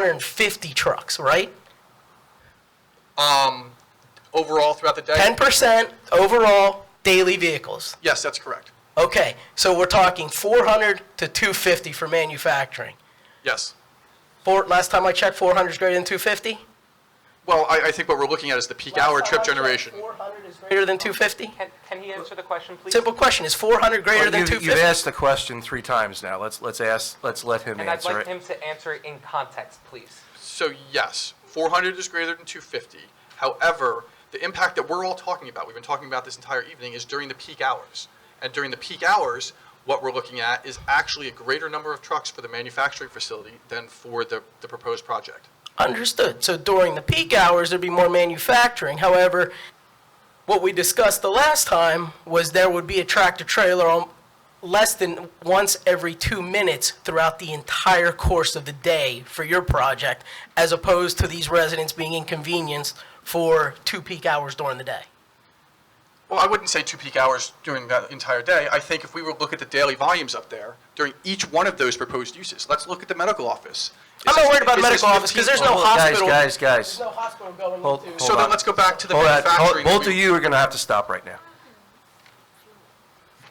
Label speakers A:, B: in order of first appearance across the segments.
A: 250 trucks, right?
B: Um, overall throughout the day?
A: 10% overall daily vehicles.
B: Yes, that's correct.
A: Okay, so we're talking 400 to 250 for manufacturing.
B: Yes.
A: Four, last time I checked, 400 is greater than 250?
B: Well, I, I think what we're looking at is the peak hour trip generation.
A: 400 is greater than 250?
C: Can, can he answer the question, please?
A: Simple question, is 400 greater
D: Well,
A: than
D: you've-
A: 250?
D: You've asked the question three times now. Let's, let's ask, let's let him
C: And I'd
D: answer
C: like
D: it.
C: him to answer it in context, please.
B: So yes, 400 is greater than 250. However, the impact that we're all talking about, we've been talking about this entire evening, is during the peak hours. And during the peak hours, what we're looking at is actually a greater number of trucks for the manufacturing facility than for the, the proposed project.
A: Understood. So during the peak hours, there'd be more manufacturing. However, what we discussed the last time was there would be a tractor trailer on less than once every two minutes throughout the entire course of the day for your project, as opposed to these residents being inconvenienced for two peak hours during the day.
B: Well, I wouldn't say two peak hours during that entire day. I think if we were to look at the daily volumes up there during each one of those proposed uses, let's look at the medical office.
A: I'm not
B: Is this-
A: worried about
B: is this
A: medical office,
B: 15
A: because there's no
B: people?
D: Guys,
A: hospital.
D: guys, guys.
A: No hospital going
D: Hold-
A: into.
B: So
D: Hold
B: then
D: on.
B: let's go back to the
D: Hold on.
B: manufacturing.
D: Both of
B: we-
D: you are going to have to stop right now.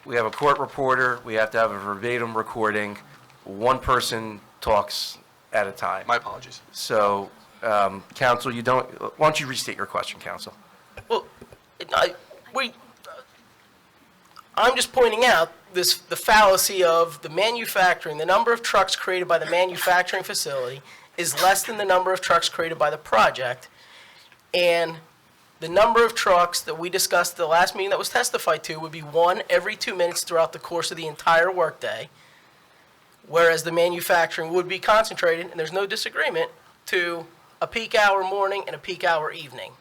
D: We have a court reporter, we have to have a verbatim recording. One person talks at a time.
B: My apologies.
D: So, um, counsel, you don't, why don't you restate your question, counsel?
A: Well, I, we, I'm just pointing out this, the fallacy of the manufacturing, the number of trucks created by the manufacturing facility is less than the number of trucks created by the project. And the number of trucks that we discussed at the last meeting that was testified to would be one every two minutes throughout the course of the entire workday. Whereas the manufacturing would be concentrated, and there's no disagreement, to a peak hour morning and a peak hour evening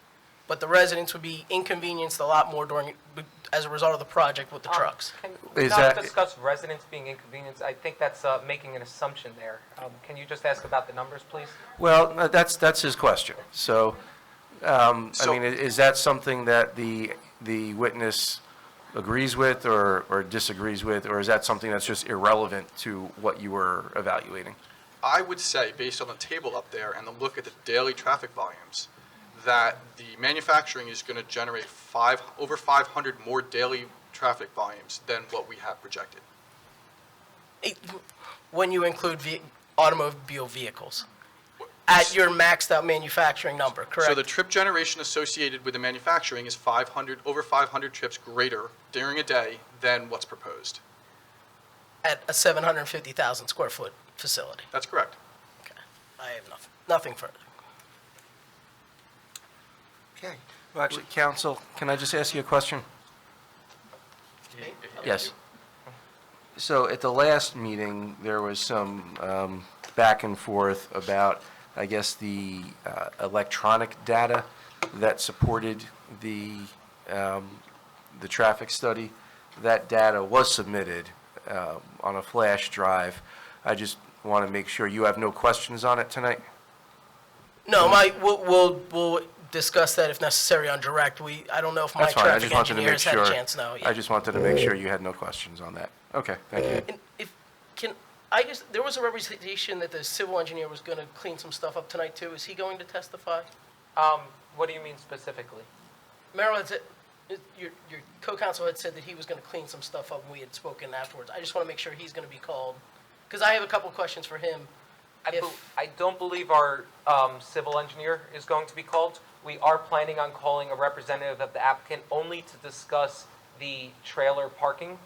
A: but the residents would be inconvenienced a lot more during, as a result of the project with the
C: Um,
A: trucks.
C: Can we
D: Is
C: not
D: that-
C: discuss residents being inconvenienced? I think that's uh, making an assumption there. Um, Can you just ask about the numbers, please?
D: Well, no, that's, that's his question. So, um, I
B: So-
D: mean, i- is that something that the, the witness agrees with or, or disagrees with? Or is that something that's just irrelevant to what you were evaluating?
B: I would say, based on the table up there and the look at the daily traffic volumes, that the manufacturing is going to generate five, over 500 more daily traffic volumes than what we have projected.
A: It- When you include ve- automobile vehicles, at your maxed-out manufacturing number,
B: So the
A: correct?
B: trip generation associated with the manufacturing is 500, over 500 trips greater during a day than what's proposed.
A: At a 750,000 square foot facility.
B: That's correct.
A: Okay. I have nothing, nothing further.
D: Okay. Well, actually, counsel, can I just ask you a question? Yes. So at the last meeting, there was some um, back and forth about, I guess, the uh, electronic data that supported the, um, the traffic study. That data was submitted uh, on a flash drive. I just want to make sure you have no questions on it tonight?
A: No, my, we'll, we'll, we'll discuss that if necessary on direct. We, I don't know if my
D: That's fine, I
A: traffic
D: just wanted to make
A: engineers had
D: sure.
A: a chance, no. yeah.
D: I just wanted to make sure you had no questions on that. Okay, thank you.
A: And if, can, I just, there was a representation that the civil engineer was going to clean some stuff up tonight too. Is he going to testify?
C: Um, What do you mean specifically?
A: Merrill had said, your, your co-counsel had said that he was gonna clean some stuff up, and we had spoken afterwards. I just wanna make sure he's gonna be called, because I have a couple questions for him.
C: I
A: If-
C: bel- I don't believe our um, civil engineer is going to be called. We are planning on calling a representative of the applicant only to discuss the trailer parking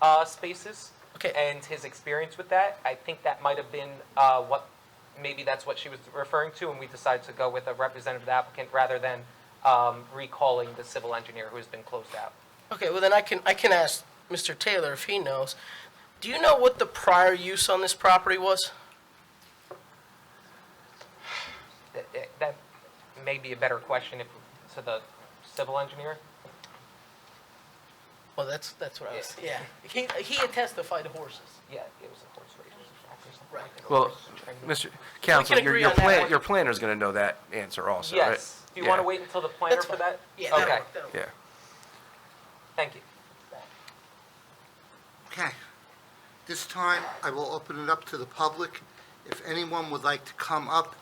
C: uh, spaces
A: Okay.
C: and his experience with that. I think that might have been uh, what, maybe that's what she was referring to, and we decided to go with a representative of the applicant rather than um, recalling the civil engineer who has been closed out.
A: Okay, well then I can, I can ask Mr. Taylor if he knows. Do you know what the prior use on this property was?
C: That- that- That may be a better question if- to the civil engineer.
A: Well, that's, that's what I was, yeah. He, he had testified to horses.
C: Yeah, it was a horse race track or something.
A: Right.
C: like that.
D: Well, Mr. Counsel, your,
A: agree
D: your
A: on that
D: plan,
A: one.
D: your planner's gonna know that answer also, right?
C: Yes. Do you want to
D: Yeah,
C: wait until the planner
A: That's
C: for
A: fine.
C: that?
A: Yeah, that'll
C: Okay,
A: work, that'll work.
D: Yeah.
C: thank you.
E: Okay. This time, I will open it up to the public. If anyone would like to come up